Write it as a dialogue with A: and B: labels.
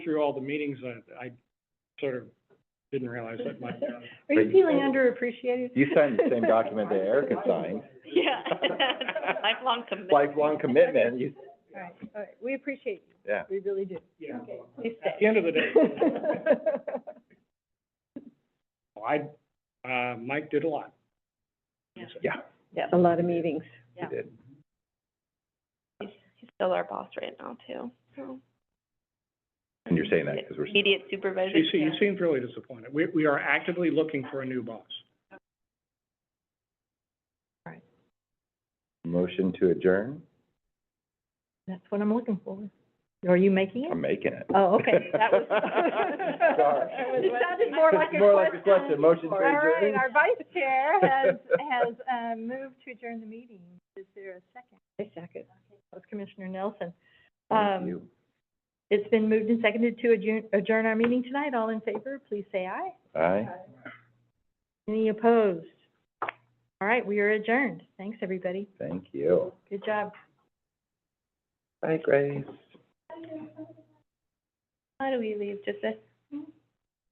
A: through all the meetings, I, I sort of didn't realize that my,
B: Are
C: But
B: you
C: you-
B: feeling underappreciated?
C: You signed the same document that Erica signed,
D: Yeah, lifelong commitment.
C: lifelong commitment, you,
B: All right, all right, we appreciate you,
C: yeah.
B: we really do.
A: yeah.
B: Please
A: At
B: stay.
A: the end of the day, I, uh, Mike did a lot.
C: Yeah,
B: Yeah, a lot of meetings.
C: you did.
D: He's still our boss right now, too, so.
C: And you're saying that because we're,
D: Immediate supervision.
A: You see, you seemed really disappointed. We, we are actively looking for a new boss.
C: motion to adjourn,
B: That's what I'm looking for. Are you making
C: I'm making it.
B: Oh, okay, that was.
C: Sorry.
B: It sounded more like a question.
C: More like a question, motion to
B: All right,
C: adjourn.
B: our vice chair has, has, uh, moved to adjourn the meeting. Is there a second? A second. That was Commissioner Nelson.
C: Thank
B: Um,
C: you.
B: It's been moved and seconded to adjourn, adjourn our meeting tonight. All in favor, please say aye.
C: Aye.
B: Any opposed? All right, we are adjourned. Thanks, everybody.
C: Thank you.
B: Good job.
C: Bye, Grace.
D: How do we leave? Just this?